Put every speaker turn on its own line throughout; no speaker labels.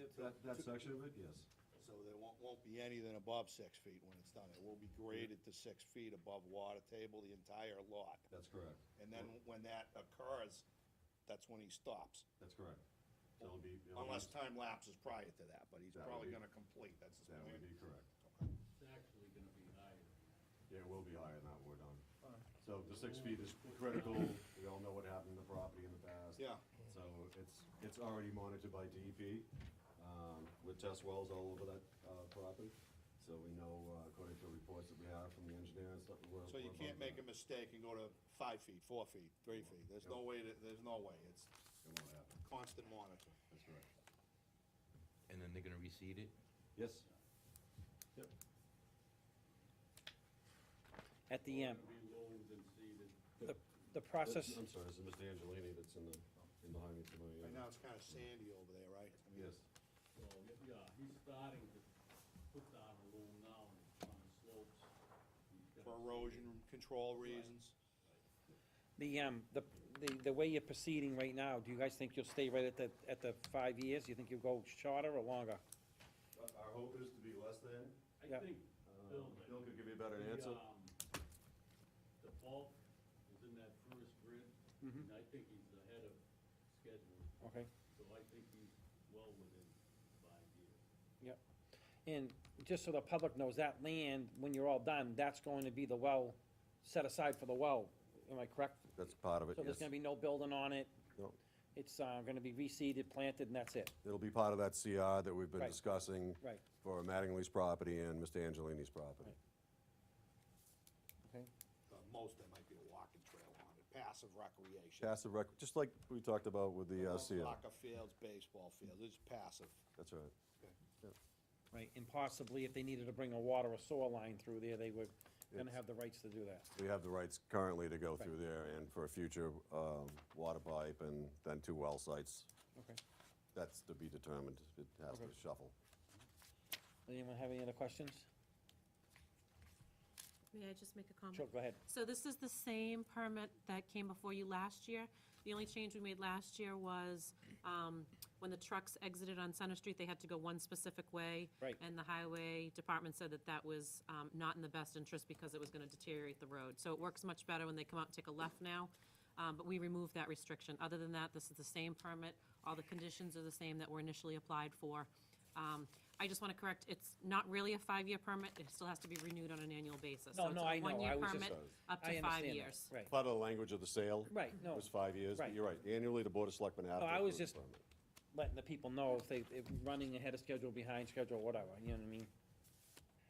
it to.
That, that section of it, yes.
So there won't, won't be anything above six feet when it's done. It will be graded to six feet above water table, the entire lot.
That's correct.
And then when that occurs, that's when he stops.
That's correct. So it'll be. it'll be-
Unless time lapses prior to that, but he's
That would
probably
be-
gonna complete, that's his
That would
plan.
be correct.
It's actually gonna be higher.
Yeah, it will be higher than that, we're done. So the six feet is critical. We all know what happened to the property in the past.
Yeah,
So it's, it's already monitored by DEP, um, with test wells all over that, uh, property. So we know, uh, according to reports that we have from the engineer and stuff, we're.
so you
we're
can't
above
make a
that.
mistake and go to five feet, four feet, three feet. There's no way, that there's no way. It's
It won't happen,
constant monitoring.
that's right.
And then they're gonna reseed it?
Yes?
At the end,
It's gonna be loads and seeded.
the, the process,
I'm sorry, this is Mr. Angelini that's in the, in behind me somewhere.
Right now, it's kinda sandy over there, right? I mean,
Yes,
So, y- yeah, he's starting to put down a loom now and it's on the slopes. He's got
For
it
erosion control reasons.
the, um, the, the, the way you're proceeding right now, do you guys think you'll stay right at the, at the five years? You think you'll go shorter or longer?
Our- our hope is to be less than,
seeded.
yeah.
I think
uh,
Bill,
Bill could give you a
the,
better answer.
um, the bulk is in that first grid,
Mm-hmm.
and I think he's ahead of schedule,
Okay,
so I think he's well within five years.
yep. And just so the public knows, that land, when you're all done, that's going to be the well, set aside for the well. Am I correct?
That's part of it,
So there's gonna be no building on it. It's, uh, gonna be reseeded, planted, and that's it.
It'll be part of that CR that we've been
Right.
discussing
Right.
for Mattingly's property and Mr. Angelini's property.
Okay.
Uh, most, there might be a walking trail on it, passive recreation.
Passive rec, just like we talked about with the uh,
No
CR.
Soccer fields, baseball fields, it's passive.
That's right.
Right, and possibly if they needed to bring a water or sewer line through there, they were gonna have the rights to do that.
We have the rights currently to go through there and for a future um, water pipe and then two well sites.
Okay.
That's to be determined. It has to
Okay.
shuffle.
Anyone have any other questions?
May I just make a
Sure,
comment?
go ahead.
So this is the same permit that came before you last year. The only change we made last year was um, when the trucks exited on Center Street, they had to go one specific way.
Right.
And the highway department said that that was um, not in the best interest because it was going to deteriorate the road. So it works much better when they come out and take a left now, um, but we removed that restriction. Other than that, this is the same permit. All the conditions are the same that were initially applied for. Um, I just want to correct, it's not really a five-year permit. It still has to be renewed on an annual basis.
No,
So it's
no,
a
I know.
one-year
I was just-
permit Up
I
to five
understand that.
years.
Right,
Part of the language of the sale.
Right, no.
Was five years, but
Right.
you're right. Annually, the Board of Selectmen have to.
No, I
approve
was
the
just-
permit.
letting the people know if they, if running ahead of schedule, behind schedule, whatever, you know what I mean?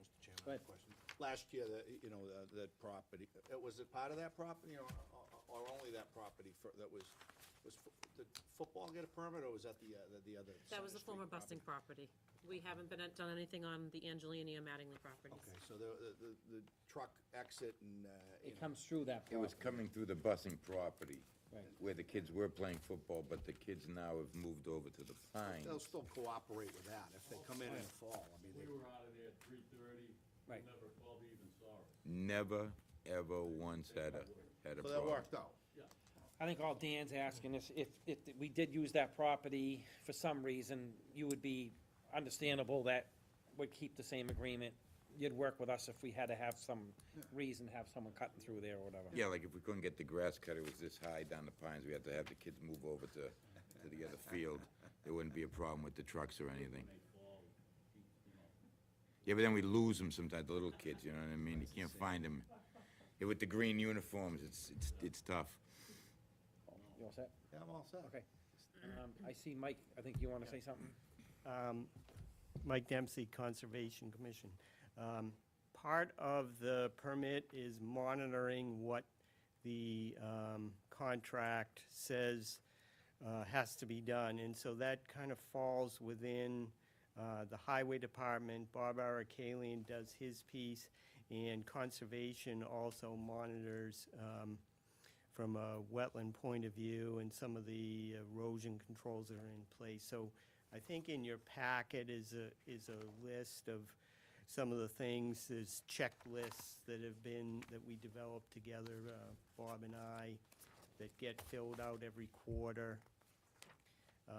Mr. Chairman,
Go ahead.
question. Last year, the, you know, the- that property, uh, was it part of that property or, or- or only that property for, that was, was, fo- did football get a permit or was that the, uh, the- the other?
That was the
Center Street
former
property?
busting property. We haven't been, done anything on the Angelini or Mattingly properties.
Okay, so the, the- the, the truck exit and, uh, you
It
know,
comes through that
It was
property.
coming through the busing property,
Right.
where the kids were playing football, but the kids now have moved over to the
they'll
Pines.
still cooperate with that if they come in in the fall. I mean,
We
they,
were out of there at three thirty.
Right.
Never probably even saw us.
Never, ever once had a, had a
so that
problem.
worked out.
I think all Dan's asking is if, if we did use that property for some reason, you would be understandable that would keep the same agreement. You'd work with us if we had to have some reason, to have someone cutting through there or whatever.
Yeah, like if we couldn't get the grass cut, it was this high down the Pines, we had to have the kids move over to, to the other field. There wouldn't be a problem with the trucks or anything.
They fall, you know.
Yeah, but then we lose them sometimes, the little kids, you know what I mean? You can't find them. With the green uniforms, it's, it's, it's tough.
You all set?
Yeah, I'm all set.
Okay. Um, I see Mike, I think you wanna say something?
Um, Mike Dempsey, Conservation Commission. Um, Part of the permit is monitoring what the um, contract says uh, has to be done. And so that kind of falls within uh, the Highway Department. Bob Arakalian does his piece, and Conservation also monitors um, from a wetland point of view and some of the erosion controls that are in place. So I think in your packet is a, is a list of some of the things, there's checklists that have been, that we developed together, uh, Bob and I, that get filled out every quarter.